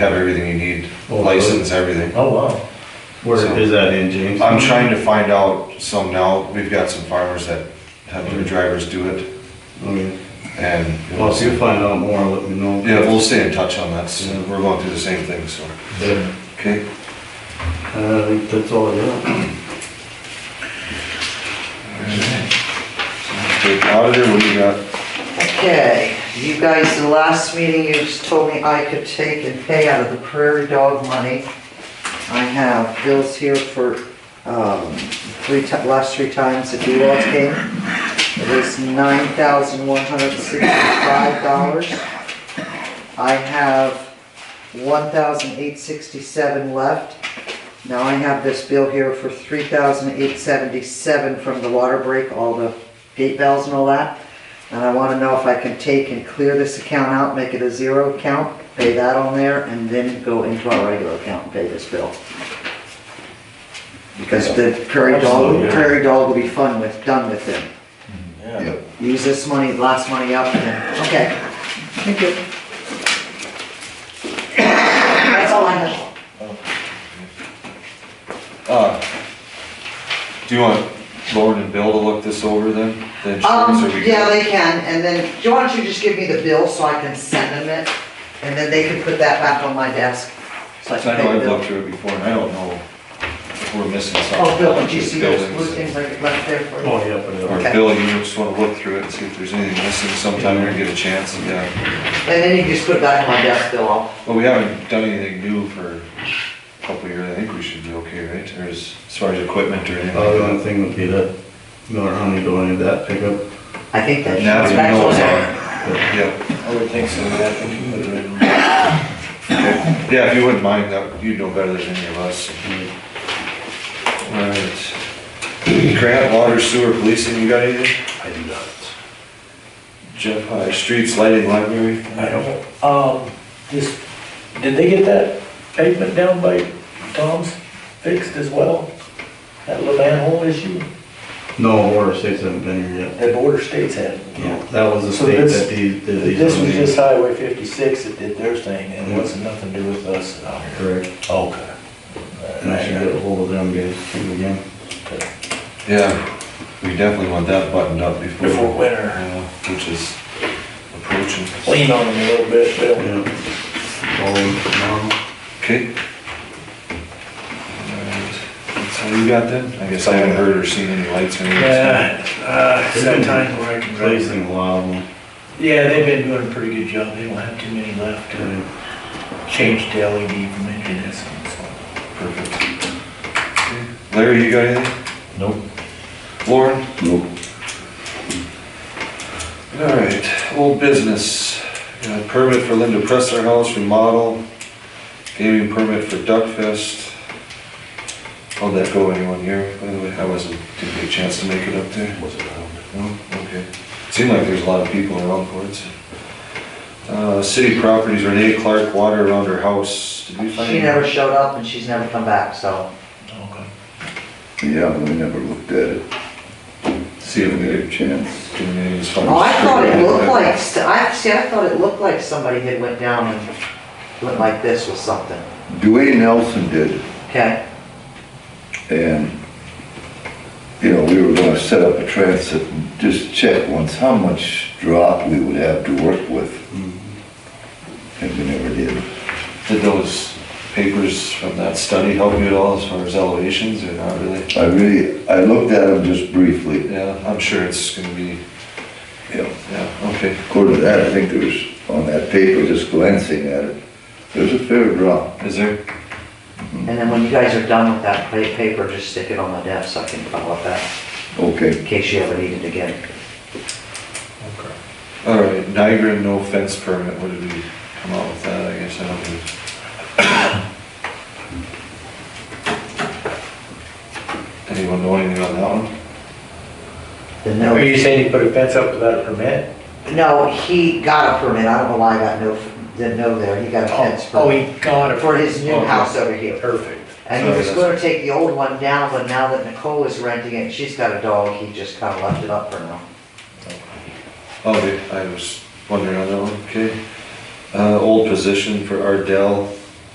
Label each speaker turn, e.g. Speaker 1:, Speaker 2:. Speaker 1: have everything you need,
Speaker 2: Oh, really?
Speaker 1: license, everything.
Speaker 2: Oh, wow.
Speaker 1: So-
Speaker 3: Where is that in James?
Speaker 1: I'm trying to find out some now, we've got some farmers that have their drivers do it,
Speaker 3: Okay.
Speaker 1: and, you know,
Speaker 2: Oh,
Speaker 3: Well, if you find out more, let me know.
Speaker 1: yeah, we'll stay in touch on that, so we're going through the same thing, so, okay?
Speaker 3: Uh, I think that's all I got.
Speaker 1: Okay, Auditor, what do you got?
Speaker 4: Okay, you guys, the last meeting, you just told me I could take and pay out of the prairie dog money. I have bills here for, um, three ti, last three times that you all came. It was nine thousand one hundred sixty-five dollars. I have one thousand eight sixty-seven left. Now I have this bill here for three thousand eight seventy-seven from the water break, all the gate bells and all that. And I wanna know if I can take and clear this account out, make it a zero account, pay that on there, and then go into our regular account and pay this bill. Because the prairie
Speaker 2: Absolutely,
Speaker 4: dog,
Speaker 2: yeah.
Speaker 4: prairie dog will be fun with, done with them.
Speaker 2: Yeah.
Speaker 4: Use this money, last money up, and then, okay. Thank you. That's all I have.
Speaker 1: Uh, Do you want Lauren and Bill to look this over then? The insurance,
Speaker 4: Um,
Speaker 1: or we-
Speaker 4: yeah, they can, and then, do you want to just give me the bill so I can send them it? And then they can put that back on my desk. So I
Speaker 1: So I
Speaker 4: can pay
Speaker 1: know
Speaker 4: the
Speaker 1: I've
Speaker 4: bill.
Speaker 1: looked through it before, and I don't know if we're missing something.
Speaker 4: Oh, Bill, did you
Speaker 1: Just
Speaker 4: see those
Speaker 1: buildings.
Speaker 4: blue things I left there for you?
Speaker 2: Oh, yeah, but,
Speaker 1: Or
Speaker 2: uh,
Speaker 4: Okay.
Speaker 1: Bill, you just wanna look through it and see if there's anything missing sometime, we're gonna get a chance, and, uh,
Speaker 4: And then you can just put it back on my desk, Bill, I'll-
Speaker 1: well, we haven't done anything new for a couple of years, I think we should be okay, right? Or as, as far as equipment or anything
Speaker 3: Uh, the
Speaker 1: like
Speaker 3: only thing would be that Miller Honey going into that pickup.
Speaker 4: I think
Speaker 1: that.
Speaker 4: that's.
Speaker 1: Now that we
Speaker 4: that's
Speaker 1: know it's
Speaker 4: on there.
Speaker 1: on, yeah,
Speaker 5: I would think so, yeah. I think you would right.
Speaker 1: Okay. yeah, if you wouldn't mind, that, you'd know better than any of us. Alright. Grant, water, sewer, policing, you got anything?
Speaker 5: I do not.
Speaker 1: Jeff, High, streets, lighting, library?
Speaker 5: I don't, um, this, did they get that pavement down by Tom's fixed as well? That little manhole issue
Speaker 3: No, Water States haven't been here yet.
Speaker 5: that border states had?
Speaker 3: No, That was the
Speaker 5: So
Speaker 3: state
Speaker 5: this-
Speaker 3: that these, that these.
Speaker 5: This was just Highway fifty-six that did their thing and it
Speaker 3: Yeah.
Speaker 5: wasn't nothing to do with us out here.
Speaker 3: Correct.
Speaker 5: Okay.
Speaker 3: And I should get ahold of them guys too again.
Speaker 1: Yeah, we definitely want that buttoned up before.
Speaker 5: Before winter,
Speaker 1: Yeah, Which is approaching.
Speaker 5: lean on them a little bit, Bill.
Speaker 3: Yeah. Call them tomorrow.
Speaker 1: Okay. Alright, That's all you got then? I guess I haven't heard or seen any lights or anything.
Speaker 6: Yeah, uh, it's that time where I can drive.
Speaker 3: Placing a lot of them.
Speaker 6: Yeah, they've been doing a pretty good job, they don't have too many left,
Speaker 3: Yeah.
Speaker 6: change to E LED from engineers, so.
Speaker 1: Perfect. Okay. Larry, you got anything?
Speaker 5: Nope.
Speaker 1: Lauren? Nope. Alright, old business. Got a Permit for Linda Presser House remodel. Gaming permit for Duck Fest. How'd that go, anyone here? By the way, I wasn't, didn't get a chance to make it up there.
Speaker 5: Was around.
Speaker 1: No? Okay. Seemed like there's a lot of people around for it. Uh, city properties, Renee Clark, water around her house. Did we find?
Speaker 4: She never showed up and she's never come back, so.
Speaker 6: Okay.
Speaker 7: Yeah, we never looked at it,
Speaker 1: See if we
Speaker 7: had
Speaker 1: could
Speaker 7: a chance.
Speaker 1: do any of these funds.
Speaker 4: Oh, I thought it looked like, I, see, I thought it looked like somebody had went down and went like this with something,
Speaker 7: Dwayne Nelson did, it,
Speaker 4: okay?
Speaker 7: and, you know, we were gonna set up a transit and just check once how much drop we would have to work with. And we never did.
Speaker 1: Did those papers from that study help you at all as far as elevations or not really?
Speaker 7: I really, I looked at them just briefly,
Speaker 1: Yeah, I'm sure it's gonna be,
Speaker 7: you know,
Speaker 1: yeah, okay.
Speaker 7: according to that, I think there was, on that paper, just glancing at it, there's a fair drop.
Speaker 1: Is there?
Speaker 4: And then when you guys are done with that pa- paper, just stick it on my desk, I can follow up that,
Speaker 7: Okay,
Speaker 4: in case you ever need it again.
Speaker 1: All right, Niagara no fence permit, what did we come out with that? I guess I don't think. Anyone know anything on that one?
Speaker 4: The
Speaker 5: Now, Are
Speaker 4: no,
Speaker 5: you saying he put a fence up without a permit?
Speaker 4: no, he got a permit, I don't know why I got no, the no there, he got a fence
Speaker 5: Oh,
Speaker 4: permit
Speaker 5: he got it,
Speaker 4: for his new house over here.
Speaker 5: perfect.
Speaker 4: And he was gonna take the old one down, but now that Nicole is renting it, she's got a dog, he just kinda left it up for now.
Speaker 1: Oh, we- I was wondering on that one, okay. Uh, old position for Ardell,